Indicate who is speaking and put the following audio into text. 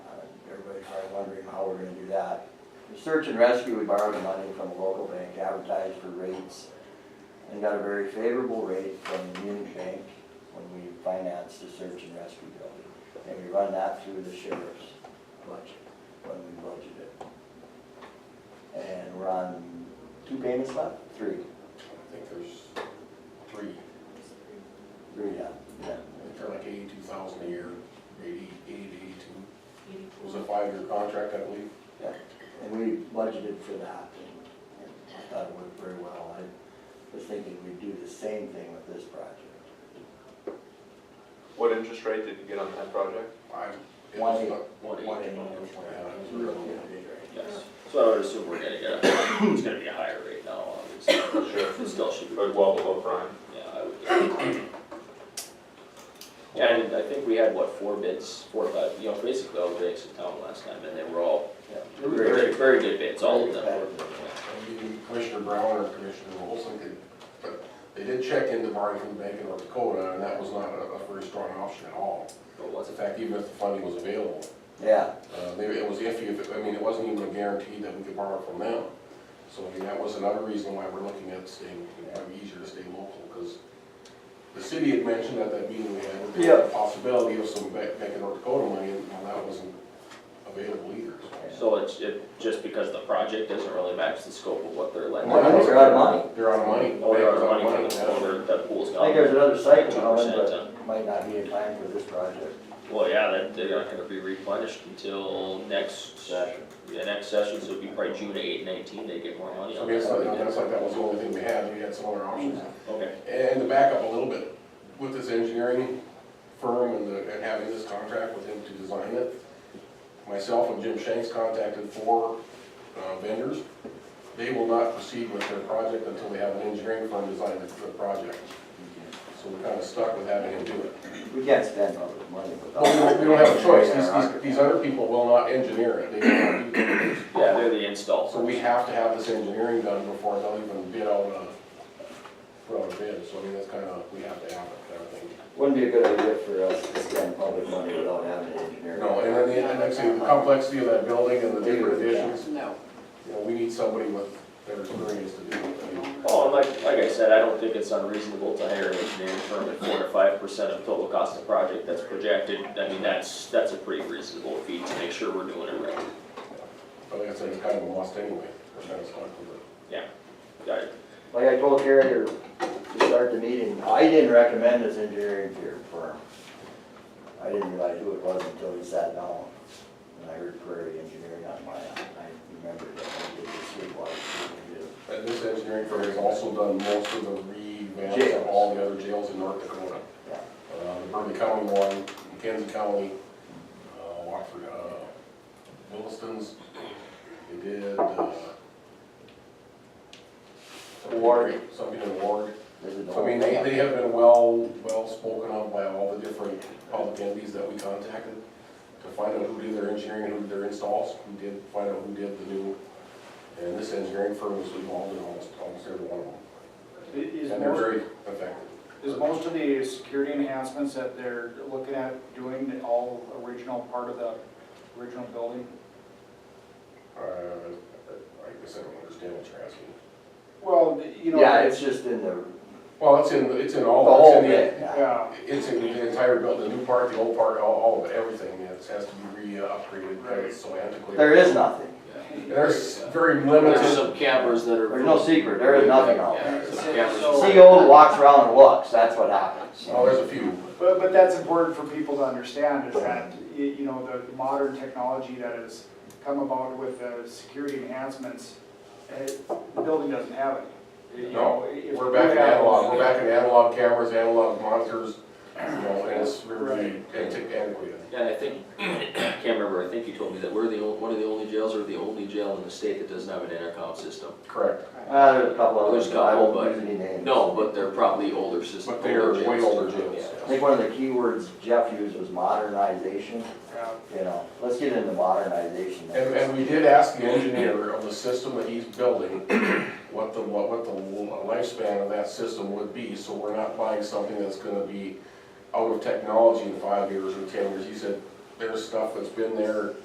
Speaker 1: we're gonna do that. The Search and rescue, we borrowed the money from a local bank, advertised for rates, and got a very favorable rate from the Munich Bank when we financed the search and rescue building. And we run that through the sheriff's budget, when we budget it. And we're on two payments left, three,
Speaker 2: I think there's three,
Speaker 1: three, yeah, yeah.
Speaker 2: they're like eighty-two thousand a year, eighty, eighty to eighty-two. It was a
Speaker 3: Eighty-four.
Speaker 2: five-year contract, I believe.
Speaker 1: Yeah, and we budgeted for that, and I thought it worked very well. I was thinking we'd do the same thing with this project.
Speaker 4: What interest rate did you get on that project?
Speaker 2: I, it
Speaker 1: One
Speaker 2: was
Speaker 1: eight.
Speaker 2: not.
Speaker 5: One
Speaker 2: One
Speaker 5: eight.
Speaker 2: eight. Yeah, it was real.
Speaker 5: Yes, so I would assume we're gonna get, a- it's gonna be a higher rate now, obviously.
Speaker 4: Sure.
Speaker 5: It still should be,
Speaker 4: Like well below prime.
Speaker 5: yeah, I would. guess. Yeah, and I think we had, what, four bids, four, or five, you know, basically all the banks in town last time, and they were all
Speaker 1: Yeah.
Speaker 5: very, very good bids, all of them
Speaker 1: Very
Speaker 5: were.
Speaker 1: competitive.
Speaker 2: Maybe Commissioner Brown or Commissioner Olson could, but they did check into borrowing from the Bank of North Dakota, and that was not a, a very strong option at all.
Speaker 5: But what's
Speaker 2: In
Speaker 5: it,
Speaker 2: fact, even if the funding was available,
Speaker 1: Yeah,
Speaker 2: Uh, maybe it was iffy, if, it- I mean, it wasn't even a guarantee that we could borrow from them. So, I mean, that was another reason why we're looking at staying, it might be easier to stay local, because the city had mentioned at that meeting we had, that there was a possibility of some Bank, Bank of North Dakota money, and that wasn't available either, so.
Speaker 5: so it's, it, just because the project doesn't really match the scope of what they're lending.
Speaker 1: Well, I think they're out of money.
Speaker 2: Oh, They're out of money.
Speaker 5: Or
Speaker 2: Bank was
Speaker 5: our money from the,
Speaker 2: yeah.
Speaker 5: over, that pool's
Speaker 1: I think there's
Speaker 5: gone. uh,
Speaker 1: another site coming,
Speaker 5: 2%,
Speaker 1: but
Speaker 5: huh?
Speaker 1: it might not be in time for this project.
Speaker 5: Well, yeah, that, they're not gonna be replenished until next, the next session, so it'd be probably June eight, nineteen, they get more money
Speaker 2: So, I
Speaker 5: on
Speaker 2: mean,
Speaker 5: that.
Speaker 2: it's not, that's like, that was the only thing we had, we had some other options.
Speaker 5: Okay,
Speaker 2: And to back up a little bit, with this engineering firm and the, and having this contract with him to design it, myself and Jim Shanks contacted four uh, vendors. They will not proceed with their project until they have an engineering firm design the, the project. So we're kind of stuck with having him do it.
Speaker 1: We can't spend public money without.
Speaker 2: But we don't, we don't have a choice, these, these, these other people will not engineer it, they will not do it.
Speaker 5: yeah, they're the install.
Speaker 2: So we have to have this engineering done before they'll even bid out a, put out a bid, so I mean, that's kind of, we have to have it, kind of thing.
Speaker 1: Wouldn't be a good idea for us to spend public money without having an engineer.
Speaker 2: No, and then the, and actually, the complexity of that building and the different additions,
Speaker 3: No.
Speaker 2: you know, we need somebody with better experience to do it.
Speaker 5: Oh, and like, like I said, I don't think it's unreasonable to hire an engineering firm at four to five percent of total cost of project that's projected. I mean, that's, that's a pretty reasonable fee to make sure we're doing it right.
Speaker 2: But like I said, it's kind of lost anyway, we're kind of stuck with it.
Speaker 5: Yeah, got it.
Speaker 1: Like I told Carrier to start the meeting, I didn't recommend this engineering firm. I didn't realize who it was until we sat down, and I heard Prairie Engineering on my, I remembered that I did the Sweetwater.
Speaker 2: And this engineering firm has also done most of the revamps of all the other jails in North Dakota.
Speaker 1: Yeah.
Speaker 2: Uh, the Burnley County one, McKenzie County, uh, Watford, uh, Williston's, they did, uh,
Speaker 1: Ward.
Speaker 2: Something in Ward.
Speaker 1: This is the
Speaker 2: I mean, they, they have been well, well spoken of by all the different public entities that we contacted to find out who did their engineering, and who did their installs, who did, find out who did the new. And this engineering firm was involved in almost, almost every one of them.
Speaker 6: Is
Speaker 2: And they're
Speaker 6: most,
Speaker 2: very effective.
Speaker 6: is most of the security enhancements that they're looking at doing all original part of the original building?
Speaker 2: Uh, I guess I don't understand what you're asking.
Speaker 6: Well, the- you know.
Speaker 1: Yeah, it's just in the,
Speaker 2: Well, it's in, it's in
Speaker 1: Oh, the
Speaker 2: all, it's
Speaker 1: whole
Speaker 2: in
Speaker 1: bit,
Speaker 2: the,
Speaker 1: yeah.
Speaker 6: Yeah,
Speaker 2: it's in the entire building, the new part, the old part, all, all of it, everything, it has to be re-upgraded, because it's so antiquated.
Speaker 1: There is nothing.
Speaker 2: There's very
Speaker 5: There's
Speaker 2: limited,
Speaker 5: some cameras that are.
Speaker 1: There's no secret. There is nothing out there.
Speaker 5: Yeah, some cameras.
Speaker 1: CO walks around and looks, that's what happens.
Speaker 2: oh, there's a few.
Speaker 6: but, but that's important for people to understand is that, y- you know, the modern technology that has come about with the security enhancements, eh, the building doesn't have any. You
Speaker 2: No,
Speaker 6: know, if
Speaker 2: We're
Speaker 6: we
Speaker 2: back in
Speaker 6: have-
Speaker 2: analog, we're back in analog cameras, analog monitors, you know, and it's really antiqu- antiquated.
Speaker 5: Yeah, I think, I can't remember, I think you told me that we're the, on- one of the only jails or the only jail in the state that doesn't have an intercom system.
Speaker 2: Correct.
Speaker 1: Uh, there's a couple others,
Speaker 5: There's a
Speaker 1: but I
Speaker 5: couple,
Speaker 1: won't
Speaker 5: but,
Speaker 1: use any names.
Speaker 5: no, but they're probably older systems.
Speaker 2: But they're way older
Speaker 5: Yeah.
Speaker 2: jails.
Speaker 1: I think one of the key words Jeff used was modernization.
Speaker 6: Yeah.
Speaker 1: you know, let's get into modernization.
Speaker 2: And, and we did ask the engineer of the system that he's building, what the, what, what the lifespan of that system would be, so we're not buying something that's gonna be out of technology in five years or ten years. He said, there's stuff that's been there